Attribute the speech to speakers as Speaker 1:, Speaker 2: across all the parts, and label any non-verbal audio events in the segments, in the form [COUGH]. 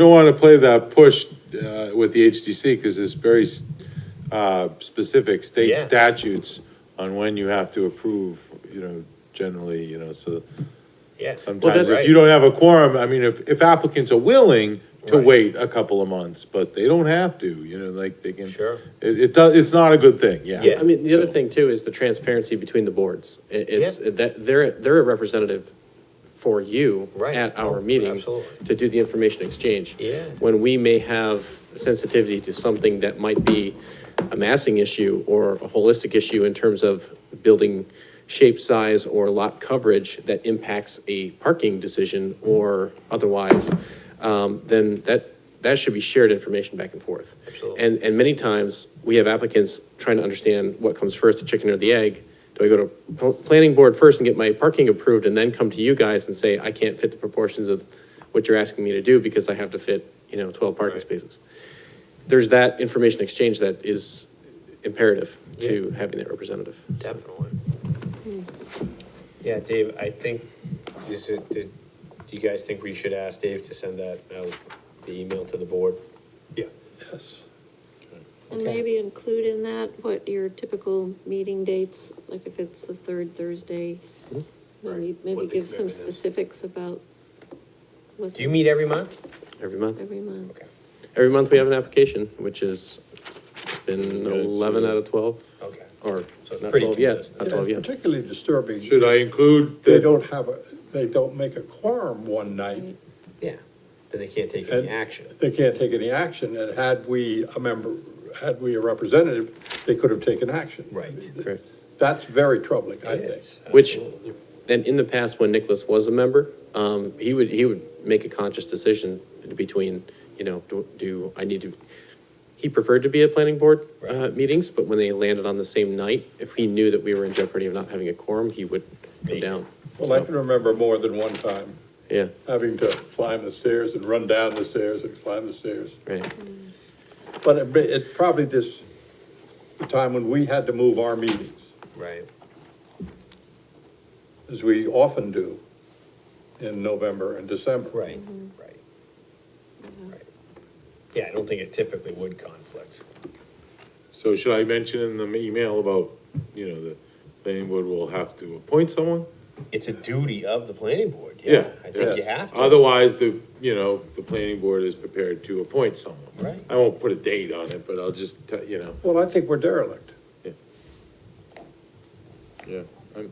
Speaker 1: Don't want to play that push uh, with the HDC because there's very uh, specific state
Speaker 2: Yeah.
Speaker 1: statutes on when you have to approve, you know, generally, you know, so
Speaker 2: Yeah.
Speaker 1: sometimes
Speaker 2: that's-
Speaker 1: if you don't have a quorum, I mean, if, if applicants are willing to
Speaker 2: Right.
Speaker 1: wait a couple of months, but they don't have to, you know, like they can.
Speaker 2: Sure.
Speaker 1: It, it does, it's not a good thing, yeah.
Speaker 2: Yeah.
Speaker 3: I mean, the other
Speaker 1: So-
Speaker 3: thing too is the transparency between the boards. It- It's, that, they're, they're a representative for you
Speaker 2: Right. Oh,
Speaker 3: at our meeting.
Speaker 2: Absolutely.
Speaker 3: To do the information exchange.
Speaker 2: Yeah.
Speaker 3: When we may have sensitivity to something that might be a massing issue or a holistic issue in terms of building shape, size, or lot coverage that impacts a parking decision or otherwise, um, then that, that should be shared information back and forth.
Speaker 2: Absolutely.
Speaker 3: And, and many times, we have applicants trying to understand what comes first, the chicken or the egg. Do I go to pl- planning board first and get my parking approved and then come to you guys and say, I can't fit the proportions of what you're asking me to do because I have to fit, you know, twelve parking
Speaker 2: Right.
Speaker 3: spaces? There's that information exchange that is imperative to having that representative.
Speaker 2: Definitely. Yeah, Dave, I think, is it, did, do you guys think we should ask Dave to send that out, the email to the board? Yeah.
Speaker 4: And
Speaker 2: Okay.
Speaker 4: maybe include in that what your typical meeting dates, like if it's the third Thursday,
Speaker 2: Mm-hmm.
Speaker 4: maybe,
Speaker 2: Right,
Speaker 4: maybe
Speaker 2: what the
Speaker 4: give some
Speaker 2: commitment is.
Speaker 4: specifics about what
Speaker 2: Do you meet every month?
Speaker 3: Every month,
Speaker 4: every month.
Speaker 2: Okay.
Speaker 3: every month we have an application, which is, it's been
Speaker 1: Yeah, it's-
Speaker 3: eleven out of twelve,
Speaker 2: Okay.
Speaker 3: or
Speaker 2: So it's
Speaker 3: not
Speaker 2: pretty
Speaker 3: twelve yet,
Speaker 2: consistent.
Speaker 3: not
Speaker 5: And
Speaker 3: twelve
Speaker 5: it's
Speaker 3: yet.
Speaker 5: particularly disturbing,
Speaker 1: Should I include
Speaker 5: they
Speaker 1: that,
Speaker 5: don't have, a they don't make a quorum one night,
Speaker 2: Yeah, then they can't take any
Speaker 5: And-
Speaker 2: action.
Speaker 5: they can't take any action, and had we a member, had we a representative, they could have taken action.
Speaker 2: Right.
Speaker 3: Correct.
Speaker 5: That's very troubling, I think.
Speaker 3: Which, and in the past, when Nicholas was a member, um, he would, he would make a conscious decision between, you know, do, do I need to, he preferred to be at planning board, uh,
Speaker 2: Right.
Speaker 3: meetings, but when they landed on the same night, if he knew that we were in jeopardy of not having a quorum, he would go
Speaker 2: Make-
Speaker 3: down.
Speaker 5: Well, I can remember more than one time
Speaker 3: Yeah,
Speaker 5: having to climb the stairs and run down the stairs and climb the stairs.
Speaker 3: right,
Speaker 5: But it, it probably this, the time when we had to move our meetings,
Speaker 2: Right,
Speaker 5: as we often do in November and December.
Speaker 2: right, right. Right. Yeah, I don't think it typically would conflict.
Speaker 1: so should I mention in the email about, you know, the planning board will have to appoint someone?
Speaker 2: It's a duty of the planning board, yeah.
Speaker 1: Yeah.
Speaker 2: I think
Speaker 1: yeah.
Speaker 2: you have to.
Speaker 1: Otherwise, the, you know, the planning board is prepared to appoint someone.
Speaker 2: Right.
Speaker 1: I won't put a date on it, but I'll just, te- you know,
Speaker 5: Well, I think we're derelict.
Speaker 1: yeah. I'm-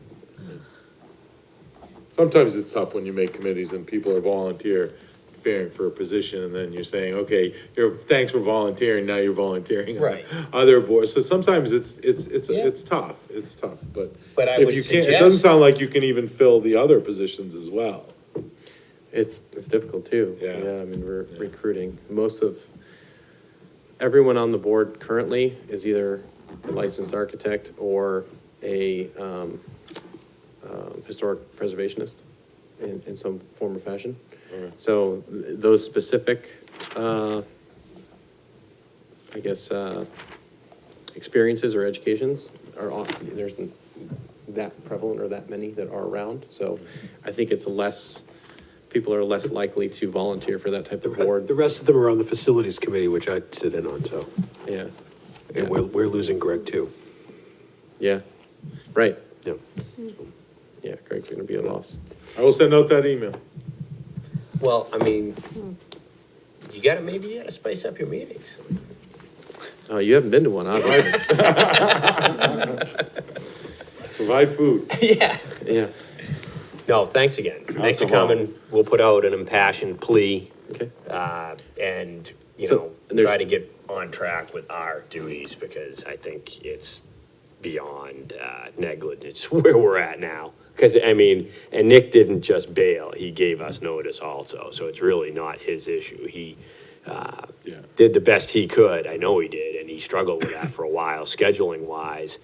Speaker 1: Sometimes it's tough when you make committees and people are volunteer, fearing for a position, and then you're saying, okay, you're, thanks for volunteering, now you're volunteering. on
Speaker 2: Right.
Speaker 1: Other boards, so sometimes it's, it's, it's,
Speaker 2: Yeah.
Speaker 1: it's tough, it's tough, but.
Speaker 2: But I
Speaker 1: if
Speaker 2: would
Speaker 1: you can't- It doesn't
Speaker 2: suggest-
Speaker 1: sound like you can even fill the other positions as well.
Speaker 3: it's, it's difficult too.
Speaker 1: Yeah.
Speaker 3: I mean, we're recruiting, most of, everyone on the board currently is either a licensed architect or a, um, um, historic preservationist in, in some form or fashion. So th- those specific, uh, I guess, uh, experiences or educations are often, there's n- that prevalent or that many that are around. So I think it's less, people are less likely to volunteer for that type of
Speaker 6: The
Speaker 3: board.
Speaker 6: rest of them are on the facilities committee, which I sit in on, so,
Speaker 3: Yeah,
Speaker 6: and we're, we're losing Greg too.
Speaker 3: yeah, right.
Speaker 6: Yeah.
Speaker 3: Yeah, Greg's gonna be a loss.
Speaker 1: I will send out that email.
Speaker 2: Well, I mean, you gotta, maybe you gotta spice up your meetings.
Speaker 3: Oh, you haven't been to one, obviously.
Speaker 1: Provide food.
Speaker 2: Yeah.
Speaker 3: Yeah,
Speaker 2: No, thanks again. Thanks for
Speaker 1: Alcohol.
Speaker 2: coming. We'll put out an impassioned plea
Speaker 3: okay.
Speaker 2: uh, and, you
Speaker 3: So,
Speaker 2: know,
Speaker 3: and there's-
Speaker 2: try to get on track with our duties because I think it's beyond uh, negligence [LAUGHS] where we're at now. Because, I mean, and Nick didn't just bail, he gave us notice also. So it's really not his issue. He uh,
Speaker 1: Yeah.
Speaker 2: did the best he could. I know he did. And he struggled with that for a while, scheduling wise.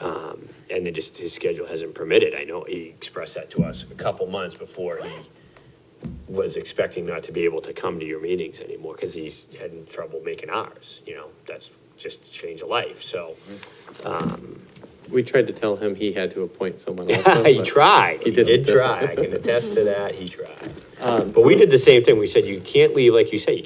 Speaker 2: Um, and then just his schedule hasn't permitted. I know he expressed that to us a couple months before he was expecting not to be able to come to your meetings anymore because he's having trouble making ours. You know, that's just change of life. So
Speaker 3: We tried to tell him he had to appoint
Speaker 2: [LAUGHS]
Speaker 3: someone also.
Speaker 2: he
Speaker 3: but-
Speaker 2: tried. He,
Speaker 3: He didn't.
Speaker 2: did try. I can attest to that. He tried. but we did the same thing. We said you can't leave, like you said, you